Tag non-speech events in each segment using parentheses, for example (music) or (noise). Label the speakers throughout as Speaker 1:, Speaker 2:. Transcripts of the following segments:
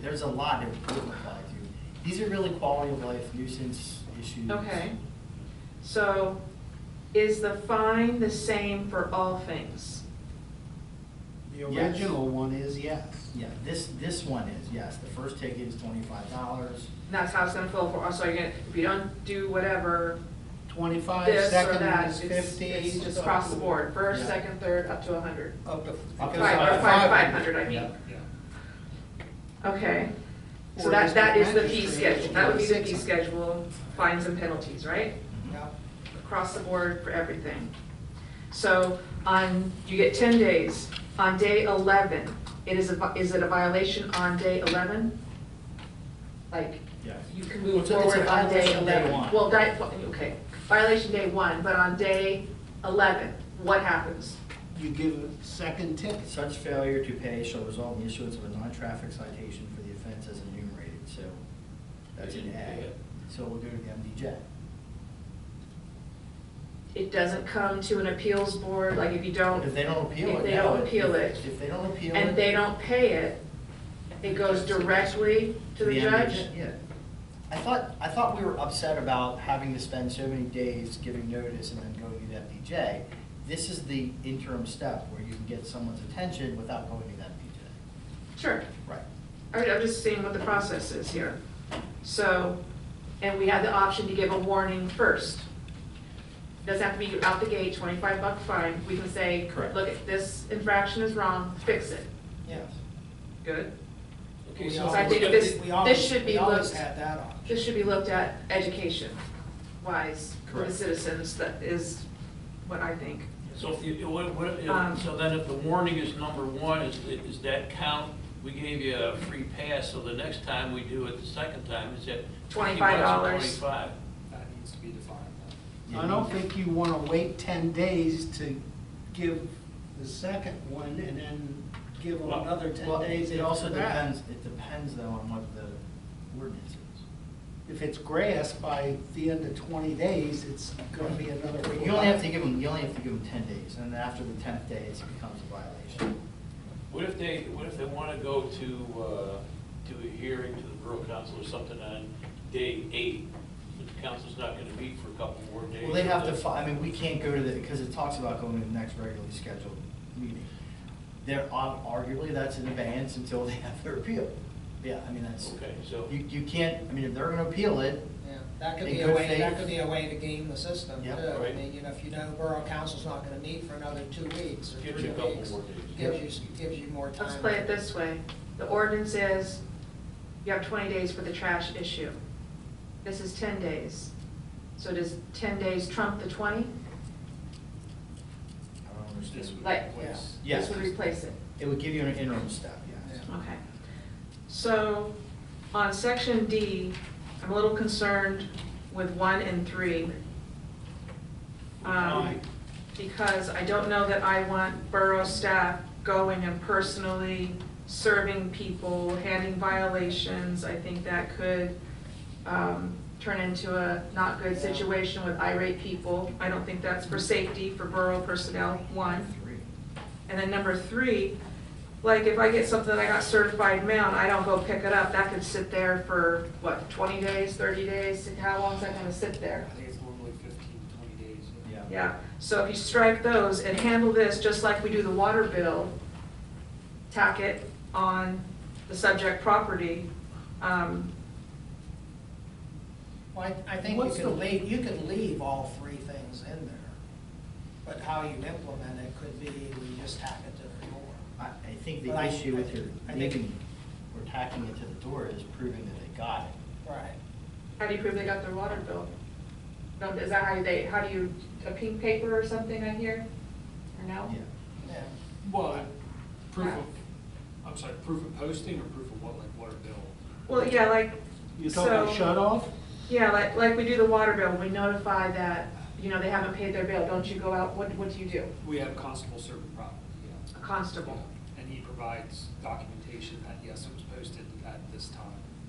Speaker 1: there's a lot that we could apply to. These are really quality of life nuisance issues.
Speaker 2: Okay. So is the fine the same for all things?
Speaker 3: The
Speaker 1: Yes.
Speaker 3: original one is yes.
Speaker 1: Yeah, this, this one is, yes, the first ticket is twenty-five dollars.
Speaker 2: And that's how it's gonna flow for, so you're gonna, if you don't do whatever,
Speaker 3: Twenty-five,
Speaker 2: this or
Speaker 3: second
Speaker 2: that,
Speaker 3: one is
Speaker 2: it's,
Speaker 3: fifty.
Speaker 2: it's just across the board, first,
Speaker 1: Yeah.
Speaker 2: second, third, up to a hundred.
Speaker 3: Up to.
Speaker 1: Up to
Speaker 3: because
Speaker 2: Five,
Speaker 3: up
Speaker 2: or
Speaker 3: to
Speaker 2: five, five hundred, I mean,
Speaker 3: Yeah.
Speaker 2: okay. So
Speaker 3: Or
Speaker 2: that,
Speaker 3: just
Speaker 2: that
Speaker 3: the
Speaker 2: is the fee
Speaker 3: magistrate
Speaker 2: schedule, that would be the fee
Speaker 3: is-
Speaker 2: schedule, fines and penalties, right?
Speaker 3: Yeah.
Speaker 2: across the board for everything. So on, you get 10 days. On day 11, it is, a vi- is it a violation on day 11? Like,
Speaker 1: Yes.
Speaker 2: you can
Speaker 1: Well,
Speaker 2: move
Speaker 1: it's a- it's a
Speaker 2: forward on day
Speaker 1: violation day
Speaker 2: 11?
Speaker 1: one.
Speaker 2: Well, di- okay, violation day one, but on day 11, what happens?
Speaker 3: You give a second tip.
Speaker 1: Such failure to pay shall result in the issuance of a non-traffic citation for the offense as enumerated, so that's an A. So we'll go to the MDJ.
Speaker 2: It doesn't come to an appeals board, like if you
Speaker 1: If
Speaker 2: don't,
Speaker 1: they don't appeal it.
Speaker 2: If they
Speaker 1: no,
Speaker 2: don't appeal it.
Speaker 1: If they don't appeal it.
Speaker 2: and they don't pay it, it goes directly to the judge?
Speaker 1: Yeah. I thought, I thought we were upset about having to spend so many days giving notice and then going to the MDJ. This is the interim step where you can get someone's attention without going to the MDJ.
Speaker 2: Sure.
Speaker 1: Right.
Speaker 2: All right, I'm just seeing what the process is here. So, and we had the option to give a warning first. Doesn't have to be out the gate, twenty-five buck fine, we can say,
Speaker 1: Correct.
Speaker 2: look, this infraction is wrong, fix it.
Speaker 1: Yes.
Speaker 2: Good.
Speaker 4: Okay,
Speaker 3: We
Speaker 4: so
Speaker 3: always-
Speaker 2: I think
Speaker 4: we got
Speaker 2: this-
Speaker 4: the-
Speaker 3: we always-
Speaker 2: should be
Speaker 3: We always
Speaker 2: looked-
Speaker 3: had that option.
Speaker 2: This should be looked at education wise for the
Speaker 1: Correct.
Speaker 2: citizens, that is what I think.
Speaker 4: So if you, what, what, if-
Speaker 2: Um,
Speaker 4: so then if the warning is number one, is, is that count? We gave you a free pass, so the next time we do it, the second time, is that twenty bucks
Speaker 2: $25?
Speaker 4: or twenty-five?
Speaker 5: That needs to be defined.
Speaker 3: I don't think you wanna wait ten days to give the second one and then give them
Speaker 4: Well,
Speaker 3: another ten
Speaker 1: Well,
Speaker 3: days
Speaker 1: it also
Speaker 3: after that.
Speaker 1: depends, it depends though on what the ordinance is.
Speaker 3: If it's grass by the end of twenty days, it's gonna be another.
Speaker 1: You only have to give them, you only have to give them ten days, and then after the tenth day, it becomes a violation.
Speaker 4: What if they, what if they want to go to, uh, to a hearing to the Borough Council or something on day eight? The council's not going to meet for a couple more days.
Speaker 1: Well, they have to,
Speaker 4: so
Speaker 1: fi- I mean, we can't go to the, because it talks about going to the next regularly scheduled meeting. They're, ob- arguably, that's in abeyance until they (laughs) have their appeal. Yeah, I mean, that's,
Speaker 4: Okay, so.
Speaker 1: you, you can't, I mean, if they're gonna appeal it,
Speaker 6: Yeah, that could
Speaker 1: In
Speaker 6: be a
Speaker 1: good
Speaker 6: way,
Speaker 1: faith.
Speaker 6: that could be a way to game the system too.
Speaker 1: Yep.
Speaker 6: I
Speaker 4: Right.
Speaker 6: mean, you know, if you know Borough Council's not gonna meet for another two weeks or
Speaker 4: Gives
Speaker 6: three
Speaker 4: you a couple
Speaker 6: weeks.
Speaker 4: more days.
Speaker 6: Gives you, gives you more time.
Speaker 2: Let's play it this way. The ordinance is, you have twenty days for the trash issue. This is ten days. So does ten days trump the twenty?
Speaker 1: I don't understand.
Speaker 2: Like,
Speaker 1: Yeah.
Speaker 2: this would replace it.
Speaker 1: It would give you an interim step, yes.
Speaker 6: Yeah.
Speaker 2: Okay. So on section D, I'm a little concerned with one and three. um,
Speaker 4: Why?
Speaker 2: Because I don't know that I want borough staff going and personally serving people, handing violations. I think that could um, turn into a not good situation with irate people. I don't think that's for safety for borough personnel, one.
Speaker 1: Three.
Speaker 2: And then number three, like if I get something that I got certified mail and I don't go pick it up, that could sit there for, what, twenty days, thirty days? How long is that gonna sit
Speaker 5: I
Speaker 2: there?
Speaker 5: think it's normally fifteen, twenty days.
Speaker 1: Yeah.
Speaker 2: Yeah, so if you strike those and handle this, just like we do the water bill, tack it on the subject property, um,
Speaker 6: Well, I I think you
Speaker 3: What's the-
Speaker 6: could leave, you could leave all three things in there, but how you implement it could be, we just tack it to the door.
Speaker 1: I, I think
Speaker 6: But
Speaker 1: the
Speaker 6: I-
Speaker 1: issue with your
Speaker 6: I think-
Speaker 1: leaving, or tacking it to the door is proving that they got it.
Speaker 6: Right.
Speaker 2: how do you prove they got their water bill? No, Is that how they, how do you, a pink paper or something I hear? Or no?
Speaker 1: Yeah.
Speaker 6: Yeah.
Speaker 5: Well, proof of, I'm sorry, proof of posting or proof of what, like water bill?
Speaker 2: Well, yeah, like,
Speaker 3: You talking
Speaker 2: So-
Speaker 3: shut off?
Speaker 2: Yeah, like, like we do the water bill, we notify that, you know, they haven't paid their bill, don't you go out, what, what do you do?
Speaker 5: We have constable serving property,
Speaker 2: A
Speaker 5: yeah.
Speaker 2: constable,
Speaker 5: And he provides documentation that, yes, it was posted at this time.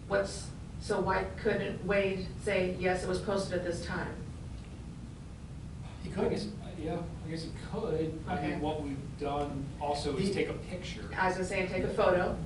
Speaker 2: what's, so why couldn't Wade say, yes, it was posted at this time?
Speaker 1: He
Speaker 5: I
Speaker 1: could.
Speaker 5: guess, uh, yeah, I guess it could. I
Speaker 2: Okay.
Speaker 5: mean, what we've done also is
Speaker 1: He-
Speaker 5: take a picture.
Speaker 2: As I say, take a photo,